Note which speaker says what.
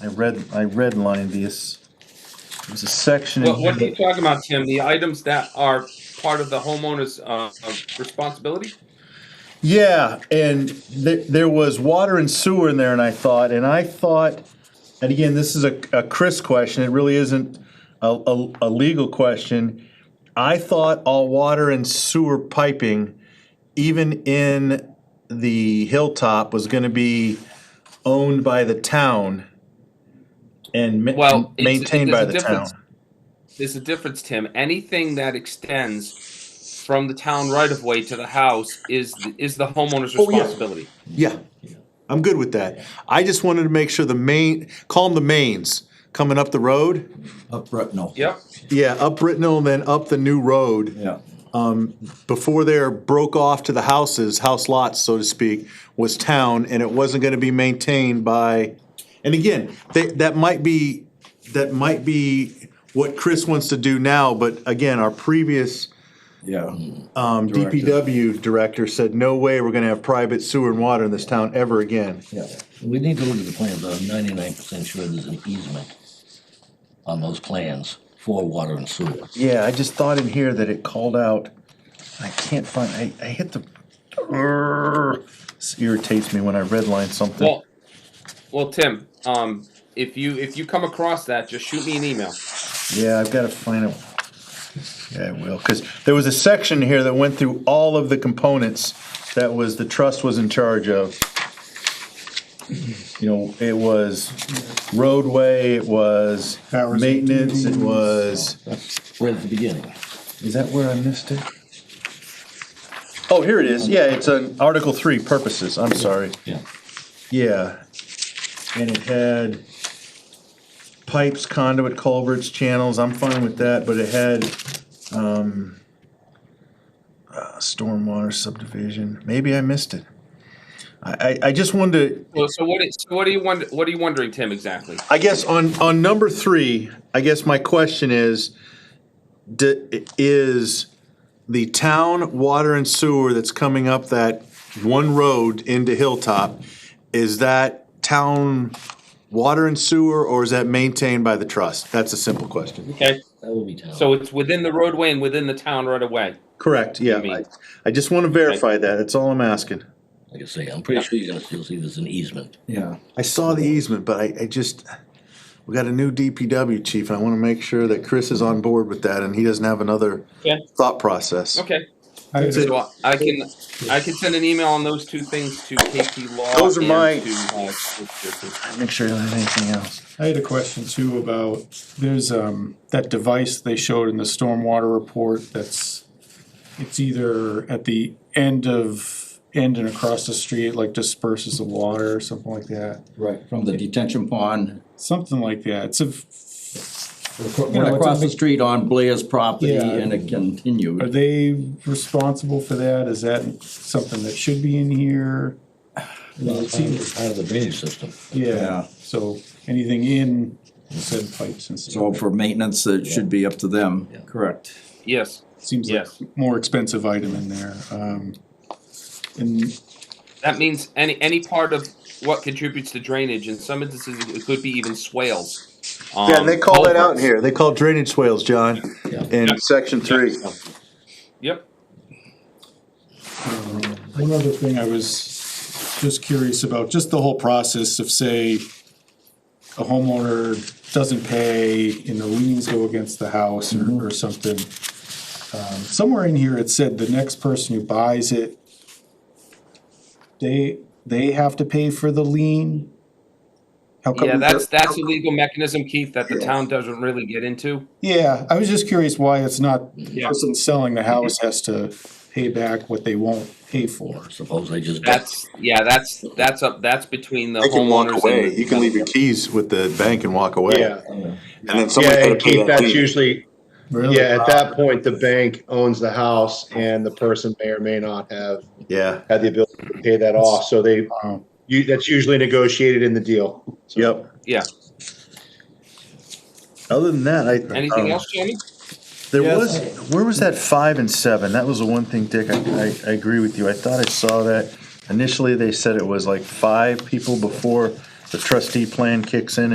Speaker 1: I read, I redlined these. There's a section in
Speaker 2: What,
Speaker 1: here
Speaker 2: what are you
Speaker 1: that,
Speaker 2: talking about, Tim? The items that are part of the homeowner's uh, uh, responsibility?
Speaker 1: yeah, and there, there was water and sewer in there and I thought, and I thought, and again, this is a, a Chris question, it really isn't a, a, a legal question. I thought all water and sewer piping, even in the hilltop, was gonna be owned by the town and ma-
Speaker 2: Well, it's-
Speaker 1: maintained by
Speaker 2: there's a
Speaker 1: the town.
Speaker 2: difference. There's a difference, Tim. Anything that extends from the town right of way to the house is is the homeowner's
Speaker 1: Oh, yeah.
Speaker 2: responsibility.
Speaker 1: Yeah, I'm good with that. I just wanted to make sure the main, call them the mains, coming up the road.
Speaker 3: Up Bretnell.
Speaker 2: Yep.
Speaker 1: Yeah, up Brittenell and then up the new road.
Speaker 3: Yeah,
Speaker 1: Before there broke off to the houses, house lots, so to speak, was town and it wasn't gonna be maintained by, and again, that, that might be, that might be what Chris wants to do now, but again, our previous
Speaker 3: yeah.
Speaker 1: um,
Speaker 3: Director.
Speaker 1: DPW director said, no way we're gonna have private sewer and water in this town ever again.
Speaker 4: Yeah, we need to look at the plans, I'm ninety-nine percent sure there's an easement on those plans for water and sewer.
Speaker 1: Yeah, I just thought in here that it called out, I can't find, I, I hit the, Urgh. this irritates me when I redline something.
Speaker 2: Well, well, Tim. Um, if you if you come across that, just shoot me an email.
Speaker 1: Yeah, I've gotta find it. Yeah, I will, cause there was a section here that went through all of the components that was, the trust was in charge of. You know, it was roadway, it was
Speaker 5: Powers and
Speaker 1: maintenance, it
Speaker 5: duties.
Speaker 1: was.
Speaker 4: Right at the beginning.
Speaker 1: Is that where I missed it? Oh, here it is. Yeah, it's an Article Three purposes. I'm sorry.
Speaker 4: Yeah.
Speaker 1: Yeah. And it had pipes, conduit, culverts, channels. I'm fine with that, but it had, um, uh, stormwater subdivision. Maybe I missed it. I, I, I just wanted to
Speaker 2: Well, so what is so what are you wonder, what are you wondering, Tim? Exactly.
Speaker 1: I guess on, on number three, I guess my question is, d- is the town water and sewer that's coming up that one road into Hilltop, is that town water and sewer or is that maintained by the trust? That's a simple question.
Speaker 2: Okay.
Speaker 4: That will be town.
Speaker 2: So it's within the roadway and within the town right away.
Speaker 1: Correct, yeah.
Speaker 2: You mean-
Speaker 1: I- I just want to verify that, that's all I'm asking.
Speaker 4: Like I say, I'm pretty sure you're gonna still see there's an easement.
Speaker 3: Yeah.
Speaker 1: I saw the easement, but I, I just, we got a new DPW chief and I want to make sure that Chris is on board with that and he doesn't have another
Speaker 2: Yeah.
Speaker 1: thought process.
Speaker 2: Okay.
Speaker 5: I-
Speaker 2: So uh, I can I can send an email on those two things to KP Law.
Speaker 1: Those are
Speaker 2: and
Speaker 1: my-
Speaker 2: to, uh,
Speaker 1: Make sure you don't have anything else.
Speaker 5: I had a question too about, there's, um, that device they showed in the stormwater report that's, it's either at the end of, end and across the street, like disperses the water or something like that.
Speaker 3: Right, from the detention pond,
Speaker 5: Something like that, it's a,
Speaker 3: went across the street on Blair's property
Speaker 5: Yeah.
Speaker 3: and it
Speaker 5: are
Speaker 3: continued.
Speaker 5: they responsible for that? Is that something that should be in here?
Speaker 4: Well, it's even part of the drainage system.
Speaker 5: Yeah,
Speaker 3: Yeah.
Speaker 5: so anything in said pipes and stuff.
Speaker 3: So for maintenance, it should be up to them. Correct.
Speaker 2: yes.
Speaker 5: Seems like
Speaker 2: Yes.
Speaker 5: more expensive item in there. Um, and
Speaker 2: That means any any part of what contributes to drainage. In some instances, it could be even swales. Um,
Speaker 1: Yeah, and they call that out in
Speaker 2: culverts.
Speaker 1: here. They call drainage swales, John,
Speaker 4: Yeah.
Speaker 1: in section three.
Speaker 2: Yep.
Speaker 5: One other thing I was just curious about, just the whole process of say, a homeowner doesn't pay and the liens go against the house or, or something. Um, Somewhere in here, it said the next person who buys it, they, they have to pay for the lien? How come
Speaker 2: Yeah,
Speaker 5: we-
Speaker 2: that's that's a legal mechanism, Keith, that the town doesn't really get into.
Speaker 5: Yeah, I was just curious why it's not, the
Speaker 2: Yeah.
Speaker 5: person selling the house has to pay back what they won't pay for.
Speaker 4: Suppose they just.
Speaker 2: That's yeah, that's that's up that's between the
Speaker 1: They can walk
Speaker 2: homeowners
Speaker 1: away.
Speaker 2: and
Speaker 1: You can leave your keys with the bank and walk away.
Speaker 6: Yeah,
Speaker 1: And then
Speaker 6: yeah,
Speaker 1: somebody
Speaker 6: and Keith, that's usually,
Speaker 5: Really?
Speaker 6: yeah, at that point, the bank owns the house and the person may or may not have
Speaker 1: Yeah,
Speaker 6: had the ability to pay that off, so they,
Speaker 5: Wow.
Speaker 6: you, that's usually negotiated in the deal.
Speaker 1: yep.
Speaker 2: Yeah.
Speaker 1: Other than that, I.
Speaker 2: Anything
Speaker 1: um,
Speaker 2: else, Jamie?
Speaker 1: There
Speaker 3: Yes.
Speaker 1: was, where was that five and seven? That was the one thing, Dick, I, I, I agree with you. I thought I saw that. Initially, they said it was like five people before the trustee plan kicks in